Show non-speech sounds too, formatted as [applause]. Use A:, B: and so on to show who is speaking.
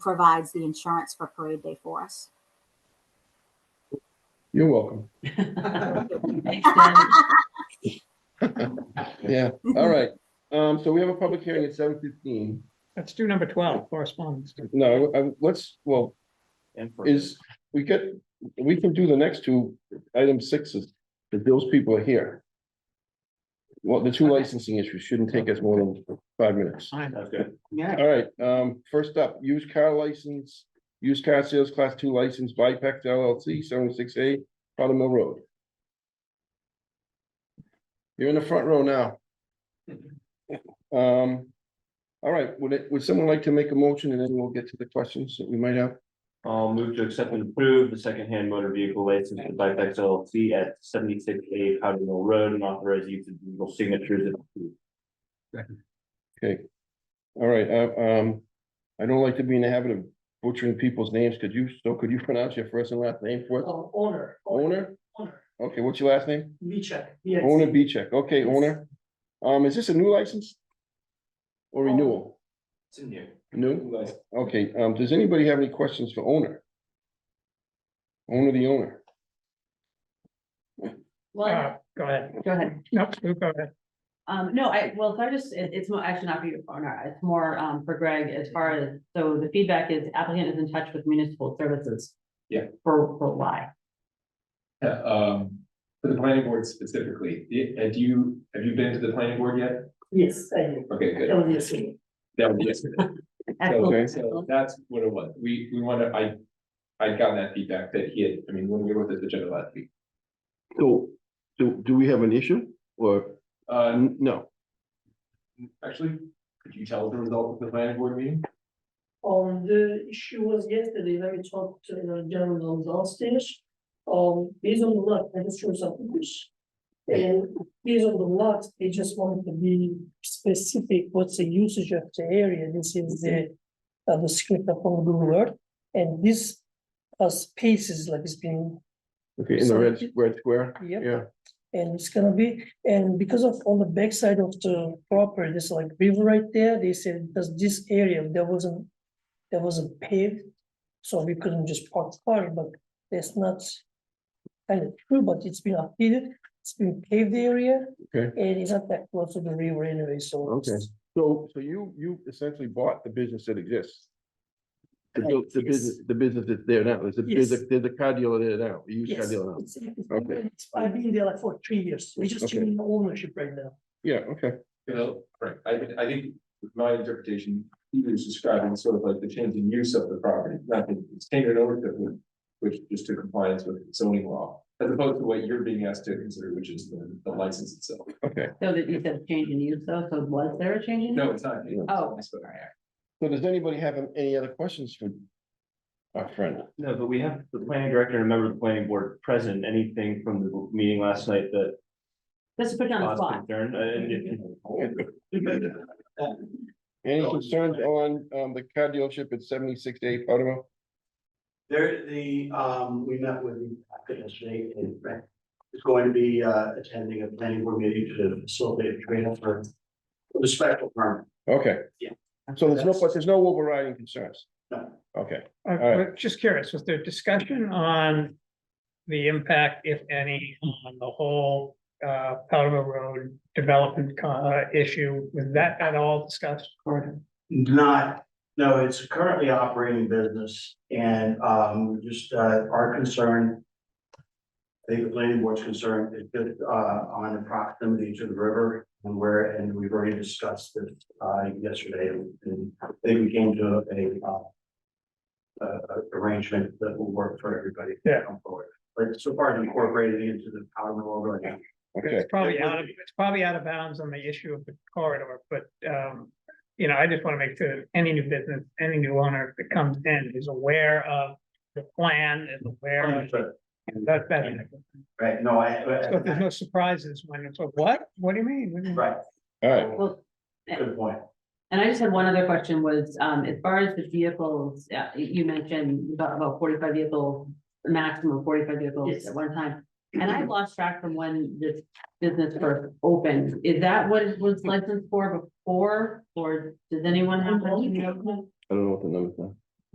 A: provides the insurance for parade day for us.
B: You're welcome.
C: Thanks, Jen.
B: Yeah, all right. Um, so we have a public hearing at seven fifteen.
D: Let's do number twelve, correspondence.
B: No, I- let's, well,
E: And for
B: is, we get, we can do the next two, item sixes, if those people are here. Well, the two
C: Okay.
B: licensing issues shouldn't take us more than five minutes.
D: Fine. Uh,
E: That's good.
C: Yeah,
B: All right, um, first up, used car license, used car sales class two license, Vipex LLC, seventy-six A, Powder Mill Road. You're in the front row now. Um, all right, would it, would someone like to make a motion and then we'll get to the questions that we might have?
E: I'll move to accept and approve the secondhand motor vehicle license for Bipex LLC at seventy-six A Powder Mill Road and authorize use of legal signatures. if approved.
B: Okay. All right, uh, um, I don't like to be in the habit of butchering people's names. Could you, so could you [laughs] pronounce your first and last name for us?
F: Oh, owner.
B: Owner?
F: Owner,
B: Okay, what's your last name?
F: Vichak, yes.
B: Owner B check, okay,
F: Yes.
B: owner. Um, is this a new license? Or
F: Oh.
B: renewal?
E: It's in here.
B: New? Okay, um, does anybody have any questions for owner? Owner, the owner.
F: Well,
D: Uh, Go ahead.
C: go ahead.
D: Nope, you go ahead.
C: Um, no, I, well, if I just, it, it's more, actually not for you, Honor, it's more, um, for Greg as far as, so the feedback is applicant is in touch with municipal services.
G: Yeah.
C: For, for why?
G: Yeah, um, for the planning board specifically, i- have you, have you been to the planning board yet?
F: yes, I did,
G: Okay,
F: that
G: good.
F: was yesterday.
G: That was yesterday.
C: Excellent,
B: Okay.
G: So
C: excellent.
G: that's what it was. We, we wanted, I, I'd gotten that feedback that he had, I mean, when we wrote this agenda last week.
B: So, do, do we have an issue or?
G: Uh,
B: no.
G: actually, could you tell us the result of the planning board meeting?
F: Um, the issue was yesterday, when we talked to the gentleman downstairs. Um, based on the lot, I just showed some pictures. And based on the lot, they just wanted to be specific, what's the usage of the area, this is the. Uh, the script of Google Earth, and this, uh, space is like it's been
B: Okay, in the red, red square?
F: Yep.
B: Yeah,
F: And it's gonna be, and because of on the backside of the property, there's like river right there, they said, because this area, there wasn't. There wasn't paved, so we couldn't just park the car, but that's not. Kind of true, but it's been updated, it's been paved area.
B: Okay.
F: And it's not that close to the river anyway, so.
B: okay. So, so you, you essentially bought the business that exists? The, bu- the
F: Yes.
B: business, the business that's there now, there's a, there's a, there's a car dealer there now, a used car
F: Yes,
B: dealer now.
F: it's- it's-
B: Okay.
F: it's- I've been there like for three years, we just
B: Okay.
F: changing the ownership right now.
B: Yeah, okay,
G: You know, right, I, I think my interpretation, he was describing sort of like the change in use of the property, not the standard ownership, which- which is to compliance with zoning law, as opposed to what you're being asked to consider, which is the, the license itself.
B: okay.
C: So that you said change in use though, so was there a change in? use?
G: No, it's not.
B: No.
C: Oh,
G: It's not.
B: So does anybody have any other questions for our friend?
E: No, but we have the planning director and a member of the planning board present. Anything from the meeting last night that
C: just to put you on the
E: caused
C: spot.
E: concern? Uh, And if you-
G: Oh.
B: Any concerns on, um, the car dealership at seventy-six to eight Potomac?
H: There, the, um, we met with the applicant yesterday and Brett is going to be, uh, attending a planning board meeting to facilitate a training for for the special permit.
B: Okay.
H: Yeah.
B: So there's no, but there's no overriding concerns?
H: No.
B: Okay,
D: I-
B: right.
D: I'm Just curious, was there discussion on the impact, if any, on the whole uh, Powder Mill Road development co- issue? Was that at all discussed?
C: Or-
H: Not, no, it's currently operating business and, um, just, uh, our concern. I think the planning board's concern is just, uh, on the proximity to the river and where, and we've already discussed this, uh, yesterday. And I think we came to a, uh, a a arrangement that will work for everybody. to
D: Yeah.
H: come forward. But so far it's incorporated into the power law right now.
B: okay.
D: It's probably out of, it's probably out of bounds on the issue of the corridor, but, um, you know, I just want to make sure that any new business, any new owner that comes in is aware of the plan, is aware of. That, that,
H: Right, no, I,
D: so if there's
H: I-
D: no surprises when it's, like, what? What do you mean? What do you mean?"
H: right,
B: All right,
H: good
C: Well, eh,
H: point.
C: and I just had one other question was, um, as far as the vehicles, uh, you mentioned about, about forty-five vehicles, a maximum of forty-five vehicles
F: Yes.
C: at one time. And I lost track from when this business first opened. Is that what it was licensed for before, or does anyone have?
B: I don't know what the numbers